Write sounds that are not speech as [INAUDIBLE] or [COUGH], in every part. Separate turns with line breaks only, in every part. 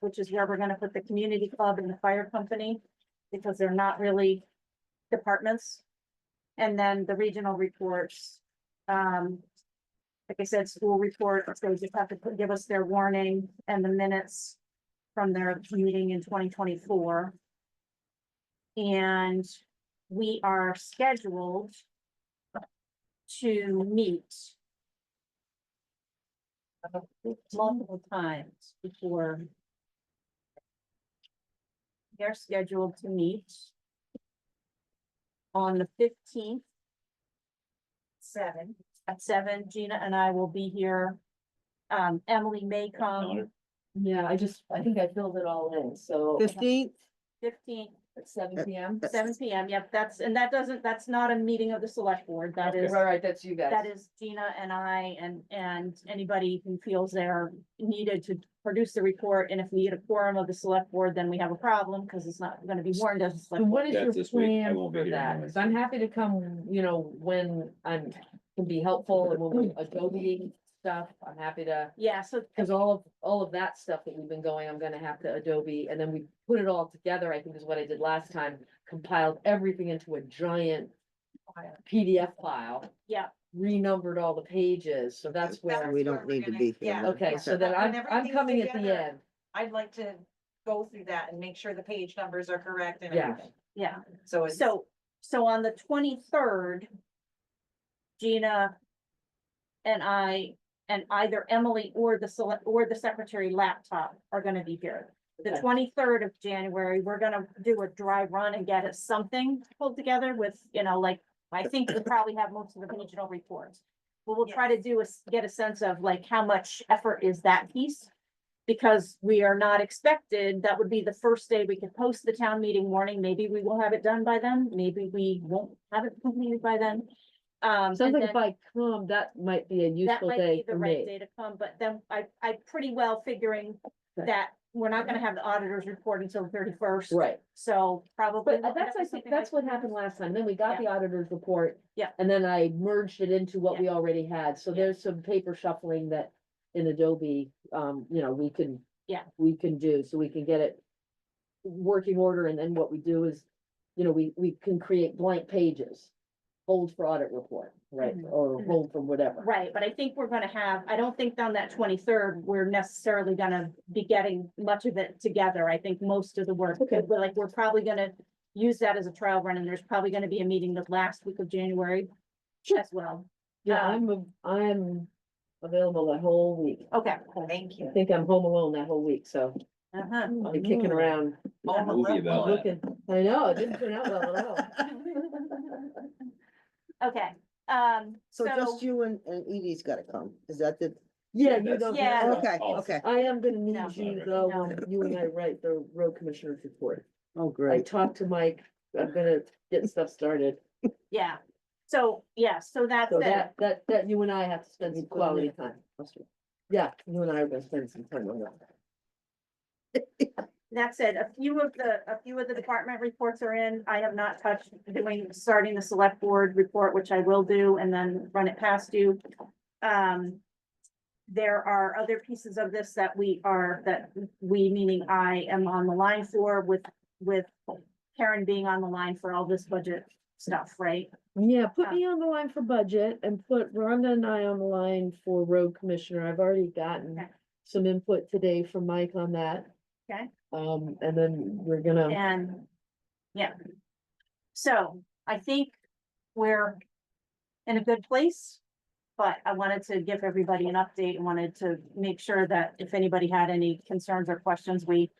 which is where we're gonna put the community club and the fire company, because they're not really departments. And then the regional reports, um, like I said, school reports, they just have to put- give us their warning and the minutes from their meeting in twenty twenty-four. And we are scheduled to meet multiple times before they're scheduled to meet on the fifteenth
Seven.
at seven. Gina and I will be here. Um, Emily may come
Yeah, I just, I think I filled it all in, so
Fifteenth,
fifteenth,
at
uh,
seven P M.
seven P M. Yep, that's, and that doesn't, that's not a meeting of the select board. That
Right,
is
right, that's you guys.
That is Gina and I and, and anybody who feels they're needed to produce the report. And if we need a quorum of the select board, then we have a problem because it's not gonna be warned as. a
So
select board.
what is
That's
your
this week. I
plan
won't be
for
here
that?
anyway.
Cause I'm happy to come, you know, when I'm, can be helpful
[CLEARS THROAT]
and when we Adobe stuff, I'm happy to.
Yeah, so
Cause all of, all of that stuff that we've been going, I'm gonna have to Adobe, and then we put it all together, I think is what I did last time, compiled everything into a giant. PDF file,
Yeah.
renumbered all the pages, so that's where,
we
where
don't
we're
need to
gonna-
be here.
yeah.
then.
okay, so
that
then I'm,
when
I'm
everything's
coming at the
together,
end,
I'd like to go through that and make sure the page numbers are correct and
Yeah.
everything.
Yeah,
So it's,
so, so on the twenty-third, Gina and I, and either Emily or the select, or the secretary laptop are gonna be here. The
Okay.
twenty-third of January, we're gonna do a dry run and get us something pulled together with, you know, like, I think we probably have most of the regional reports. What we'll try to do is get a sense of like, how much effort is that piece? Because we are not expected, that would be the first day we could post the town meeting warning, maybe we will have it done by then, maybe we won't have it completed by then. Um,
sounds
and
like
then-
if I come, that might be a
that
useful
might be
day
the
for
right
me.
day to come, but then I, I pretty well figuring
Right.
that we're not gonna have the auditor's report until the thirty-first.
Right,
So probably.
but that's, I think, that's what happened last time, then we got
Yeah.
the auditor's report.
Yeah.
And then I merged it into what
Yeah.
we already had, so
Yeah.
there's some paper shuffling that in Adobe, um, you know, we can.
Yeah.
We can do, so we can get it working order, and then what we do is, you know, we, we can create blank pages. Hold for audit report, right,
Mhm.
or
Mhm.
hold for whatever.
Right, but I think we're gonna have, I don't think on that twenty-third, we're necessarily gonna be getting much of it together. I think most of the work.
Okay.
We're like, we're probably gonna use that as a trial run and there's probably gonna be a meeting the last week of January as well.
Yeah,
Um,
I'm, av- I'm available that whole week,
Okay.
Uh-huh.
thank
I
you.
think I'm home alone that whole week, so
Uh-huh.
I'll be kicking around.
A
Home
movie
alone.
about it.
Looking, I know, it didn't turn out well at all.
Okay, um,
So
so.
just you and, and Edie's gotta come. Is that the,
[LAUGHS] Yeah, you
That's-
don't.
Yeah.
have-
okay,
Oh.
okay.
I am gonna need
No.
you though, when you and I write the road commissioner's report.
Oh,
I
great.
talked to Mike, I'm gonna get stuff started,
Yeah, so, yeah, so that's
so
it,
that, that, that you and I have to spend some
You put it in
quality
there.
time. Yeah, you and I are gonna spend some time on that.
that's it, a few of the, a few of the department reports are in, I have not touched doing, starting the select board report, which I will do, and then run it past you. Um, there are other pieces of this that we are, that we, meaning I am on the line for with, with Karen being on the line for all this budget stuff, right?
Yeah,
Yeah.
put me on the line for budget and put Rhonda and I on the line for road commissioner. I've already gotten
Okay.
some input today from Mike on that.
Okay.
Um, and then we're gonna,
And, yeah. So I think we're in a good place. But I wanted to give everybody an update and wanted to make sure that if anybody had any concerns or questions, we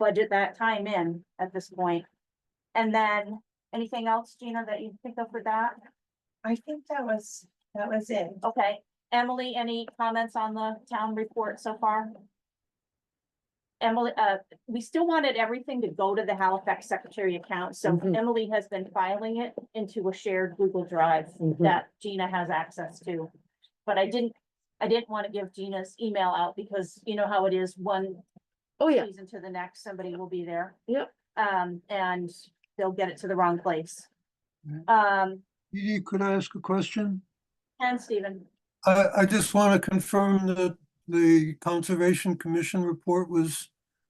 budget that time in at this point. And then, anything else, Gina, that you think of for that?
I think that was, that was it.
Okay, Emily, any comments on the town report so far? Emily, uh, we still wanted everything to go to the Halifax Secretary account, so
Mhm.
Emily has been filing it into a shared Google Drive
Mhm.
that Gina has access to. But I didn't, I didn't want to give Gina's email out because you know how it is, one
oh yeah,
season to the next, somebody will be there.
Yep.
Um, and they'll get it to the wrong place.
Right.
Um,
Edie, could I ask a question?
and Stephen,
I, I just want to confirm that the Conservation Commission report was